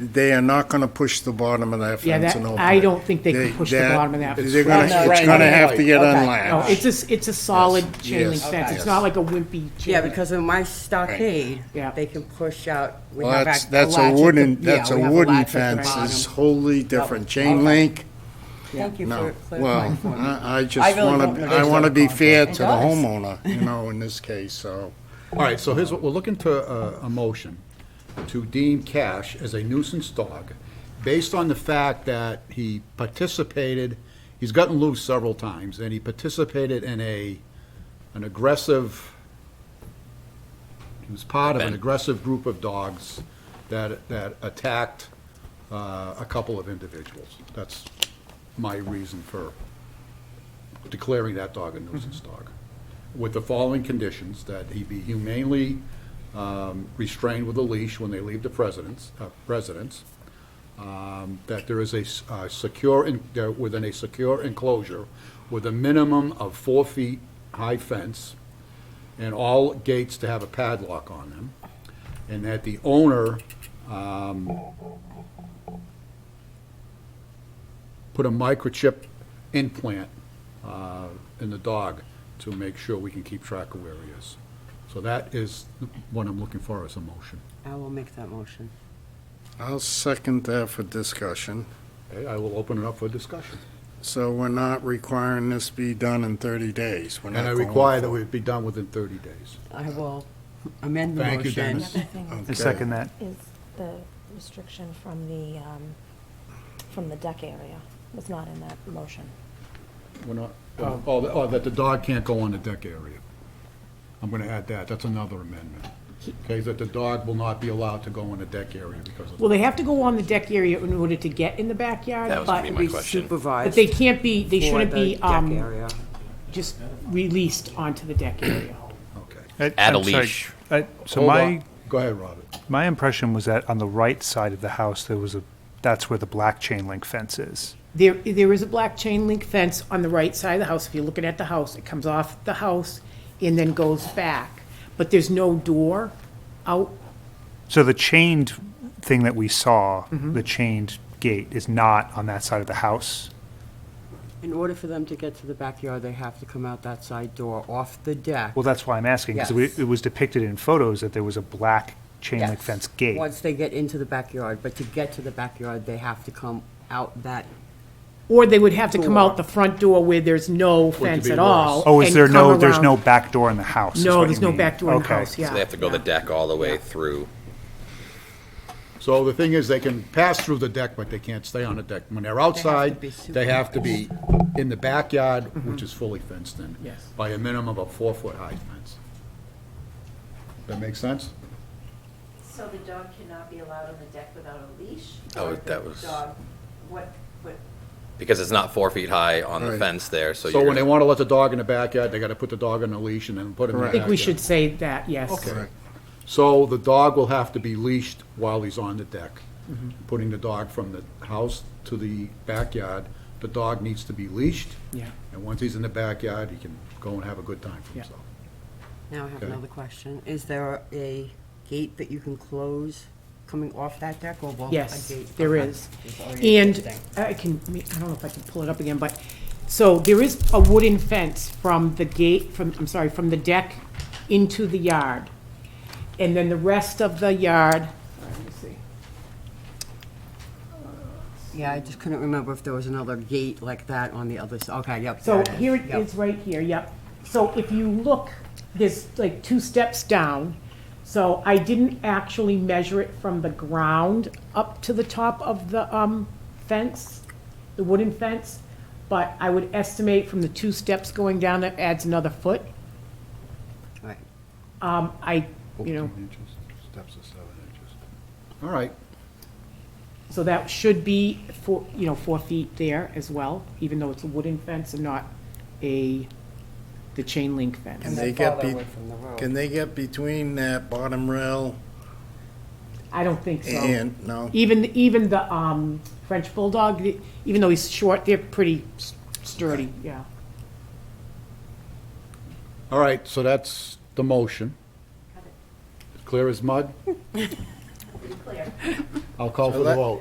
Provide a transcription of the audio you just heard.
They are not gonna push the bottom of that Yeah, fence that, and open I it. don't think they can push the that- bottom of that. They're No, gonna, Right, it's right, gonna right. have to get Okay. unlatched. Oh, it's a, it's a solid chain link yes, fence. yes. It's not like a wimpy chain. Yeah, link. because in my stockade, Yeah. they can push out. we Well, have that's, act- that's a latch at the- wooden, yeah, that's a we have wooden latch at the fence, bottom. it's wholly different. okay. Chain link, Thank you no. for Well, clarifying for me. I, I I just really wanna, don't know I this wanna other be fair to concept. the It does. homeowner, you know, in this case, so. All right, so here's what, we're looking to, uh, a motion to deem Cash as a nuisance dog based on the fact that he participated, he's gotten loose several times, and he participated in a, an aggressive, he was part of an aggressive group of dogs that, that attacked uh, a couple of individuals. That's my reason for declaring that dog a nuisance dog, with the following conditions, that he be humanely um, restrained with a leash when they leave the presidents, uh, residence, um, that there is a s- uh, secure, en- there- within a secure enclosure with a minimum of four feet high fence, and all gates to have a padlock on them, and that the owner um, put a microchip implant uh, in the dog to make sure we can keep track of where he is. So that is what I'm looking for as a motion. I will make that motion. I'll second that for discussion. Okay, I will open it up for discussion. So we're not requiring this be done in thirty days. We're And I not going require that for- we be done within 30 days. I will amend the Thank you, motion. Dennis. thing Okay. second that. is the restriction from the, um, from the deck area was not in that motion. We're not, oh, that- oh, that the dog can't go on the deck area. I'm going to add that, that's another amendment. Okay, that the dog will not be allowed to go on the deck area because of. Well, they have to go on the deck area in order to get in the backyard, That was but gonna be my question. but Supervised they can't be, they for shouldn't the be, deck um, area. just released onto the deck area. Okay. I- Add a I'm sorry. leash. I- So Hold on. my, Go ahead, Robert. my impression was that on the right side of the house, there was a, that's where the black chain link fence is. There, there is a black chain link fence on the right side of the house. If you're looking at the house, it comes off the house and then goes back. But there's no door out. So the chained thing that we saw, Mm-hmm. the chained gate is not on that side of the house. In order for them to get to the backyard, they have to come out that side door off the deck. Well, that's why I'm asking, Yes. because it was depicted in photos that there was a black chain link Yes. fence gate. Once they get into the backyard, but to get to the backyard, they have to come out that, Or they would have to come Door. out the front door where there's no be fence worse. at all. Oh, is and there come no, there's around. no back door in the house? is what No, you there's no mean. back door in the Okay. house, yeah. So they have to go the deck all the way through. So the thing is, they can pass through the deck, but they can't stay on the deck. When they're outside, be super- they have to be in the backyard, which is fully fenced in. Mm-hmm. Yes. By a minimum of four-foot-high fence. That make sense? So the dog cannot be allowed on the deck without a leash? Oh, Or that the was- Dog, what, what, Because it's not four feet high on the Right. fence there, so So you're when they gonna- want to let the dog in the backyard, they got to put the dog on a leash and then put him in the I backyard. think we should say that, yes. Okay. So the dog will have to be leashed while he's on the deck. Mm-hmm. Putting the dog from the house to the backyard, the dog needs to be leashed. Yeah. And once he's in the backyard, he can go and have a good time for Yeah. himself. now I have Okay. another question. Is there a gate that you can close coming off that deck or will? a Yes, gate- there okay. is. There's already an And existing. I can, I don't know if I can pull it up again, but, so there is a wooden fence from the gate, from, I'm sorry, from the deck into the yard. And then the rest of the yard, let me see. Yeah, I just couldn't remember if there was another gate like that on the other side. Okay, yep. So there here it Yep. is, right here, yep. So if you look, there's like two steps down. So I didn't actually measure it from the ground up to the top of the um, fence, the wooden fence, but I would estimate from the two steps going down, that adds another foot. All right. Um, I, you know, inches, steps of seven inches. All right, so that should be four, you know, four feet there as well, even though it's a wooden fence and not a, the chain link fence. Can Is that they get farther be- away from the road? Can they get between that bottom rail I don't think so. and, no? Even, even the um, French bulldog, the- even though he's short, they're pretty s- sturdy, yeah. all right, so that's the motion. Clear as mud? pretty clear. I'll call So for the that- vote.